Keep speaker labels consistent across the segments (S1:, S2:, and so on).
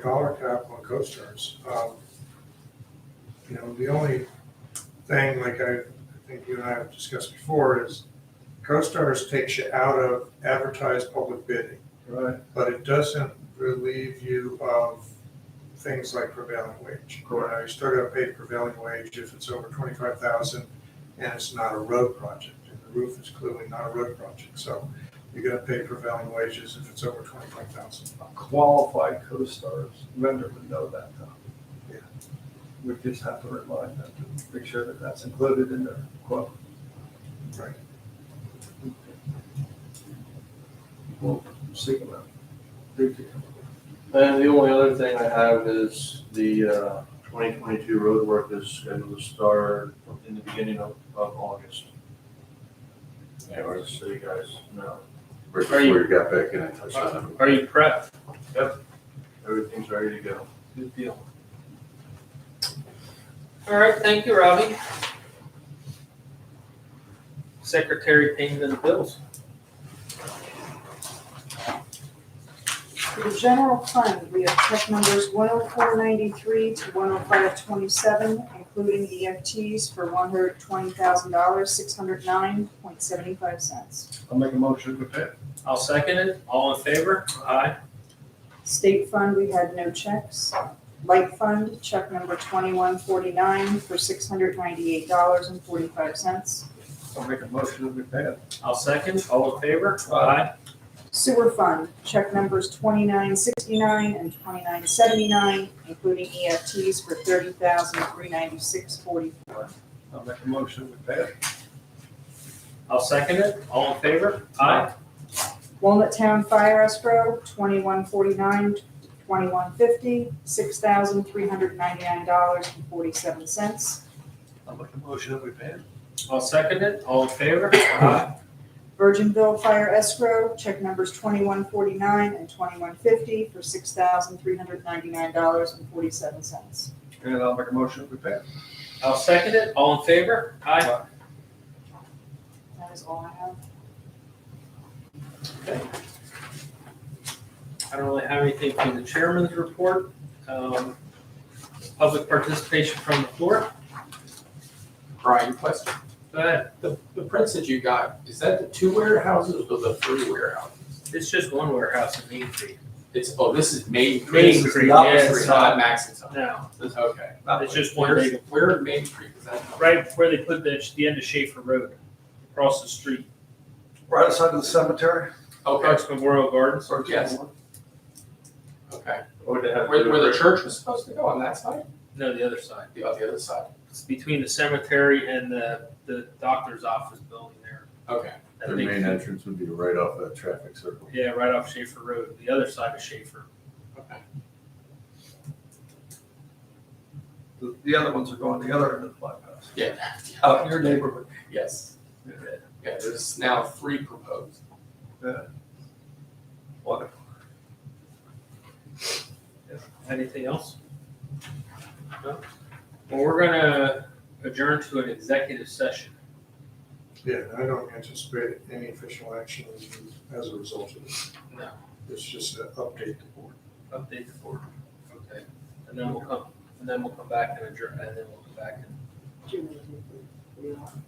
S1: dollar cap on co-stars. Um, You know, the only thing, like I I think you and I have discussed before, is co-stars takes you out of advertised public bidding,
S2: Right,
S1: but it doesn't relieve you of things like prevailing wage. You know, You still gotta pay prevailing wage if it's over twenty-five thousand and it's not a road project. And the roof is clearly not a road project, so you're gonna pay prevailing wages if it's over twenty-five thousand.
S2: a qualified co-stars vendor would know that
S1: Yeah.
S2: though. We just have to remind them to make sure that that's included in their quote.
S1: Right.
S2: We'll seek them out. Thank you.
S3: And the only other thing I have is the uh, 2022 road work is scheduled to start in the beginning of, of August. Yeah, or just so you guys know,
S4: Right
S3: Are you-
S4: before you got back in, I touched on it.
S3: Are you prepped? Yep, everything's ready to go.
S2: Good deal.
S5: All right, thank you, Robbie. Secretary paying the bills.
S6: For the general fund, we have check numbers one oh four ninety-three to one oh five twenty-seven, including EFTs for one hundred twenty thousand dollars, six hundred nine point seventy-five cents.
S2: I'll make a motion to pay.
S5: I'll second it. All in favor? Aye.
S6: State fund, we had no checks. Light fund, check number twenty-one forty-nine for six hundred ninety-eight dollars and forty-five cents.
S2: I'll make a motion to pay.
S5: I'll second. All in favor?
S2: Aye.
S6: Sewer fund, check numbers twenty-nine sixty-nine and twenty-nine seventy-nine, including EFTs for thirty thousand three ninety-six forty-four.
S2: I'll make a motion to pay.
S5: I'll second it. All in favor? Aye.
S6: Walnut Town Fire Escrow, twenty-one forty-nine, twenty-one fifty, six thousand three hundred ninety-nine dollars and forty-seven cents.
S2: I'll make a motion that we pay.
S5: I'll second it. All in favor? Aye.
S6: Virginville Fire Escrow, check numbers twenty-one forty-nine and twenty-one fifty for six thousand three hundred ninety-nine dollars and forty-seven cents.
S2: And I'll make a motion that we pay.
S5: I'll second it. All in favor? Aye.
S6: That is all I have.
S5: I don't really have anything from the chairman's report. Um, Public participation from the floor.
S7: Brian, question.
S5: Go ahead.
S7: The, the prints that you got, is that the two warehouses or the three warehouses?
S5: It's just one warehouse in Main Street.
S7: It's, oh, this is Main.
S5: Main
S7: this is
S5: Creek,
S7: not
S5: yeah,
S7: Main
S5: it's
S7: Creek,
S5: not-
S7: Not Maxton.
S5: Now,
S7: Okay.
S5: it's just one
S7: Where's,
S5: big,
S7: where in Main Creek is that?
S5: right where they put the, the end of Schaefer Road, across the street,
S2: Right outside of the cemetery?
S7: Okay,
S5: across Memorial Gardens.
S2: Or just
S7: Yes.
S2: one?
S7: okay.
S3: What would Oh, they have? to
S7: Where,
S3: do
S7: where the
S3: for-
S7: church was supposed to go on that side?
S5: No, the other side.
S7: The, on the other side.
S5: It's between the cemetery and the, the doctor's office building there.
S7: Okay.
S5: That
S4: Their
S5: big-
S4: main entrance would be right off that traffic circle.
S5: Yeah, right off Schaefer Road, the other side of Schaefer.
S7: Okay.
S2: The, the other ones are going the other end of the bypass.
S7: Yeah.
S2: Out in your neighborhood.
S7: Yes.
S2: Yeah.
S7: Yeah, there's now three proposed.
S2: Wonderful.
S5: Anything else? No? Well, we're gonna adjourn to an executive session.
S1: Yeah, and I don't anticipate any official action as a result of this.
S5: No.
S1: It's just an update to board.
S5: Update the board. Okay. And then we'll come, and then we'll come back and adjourn, and then we'll come back and adjourn.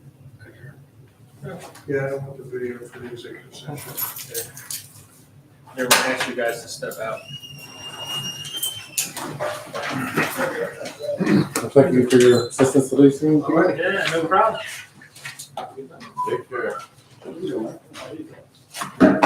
S1: Yeah, I don't want the video for the executive session.
S5: They're gonna ask you guys to step out.
S8: Thank you for your assistance with these things.
S5: Yeah, no problem.
S4: Take care.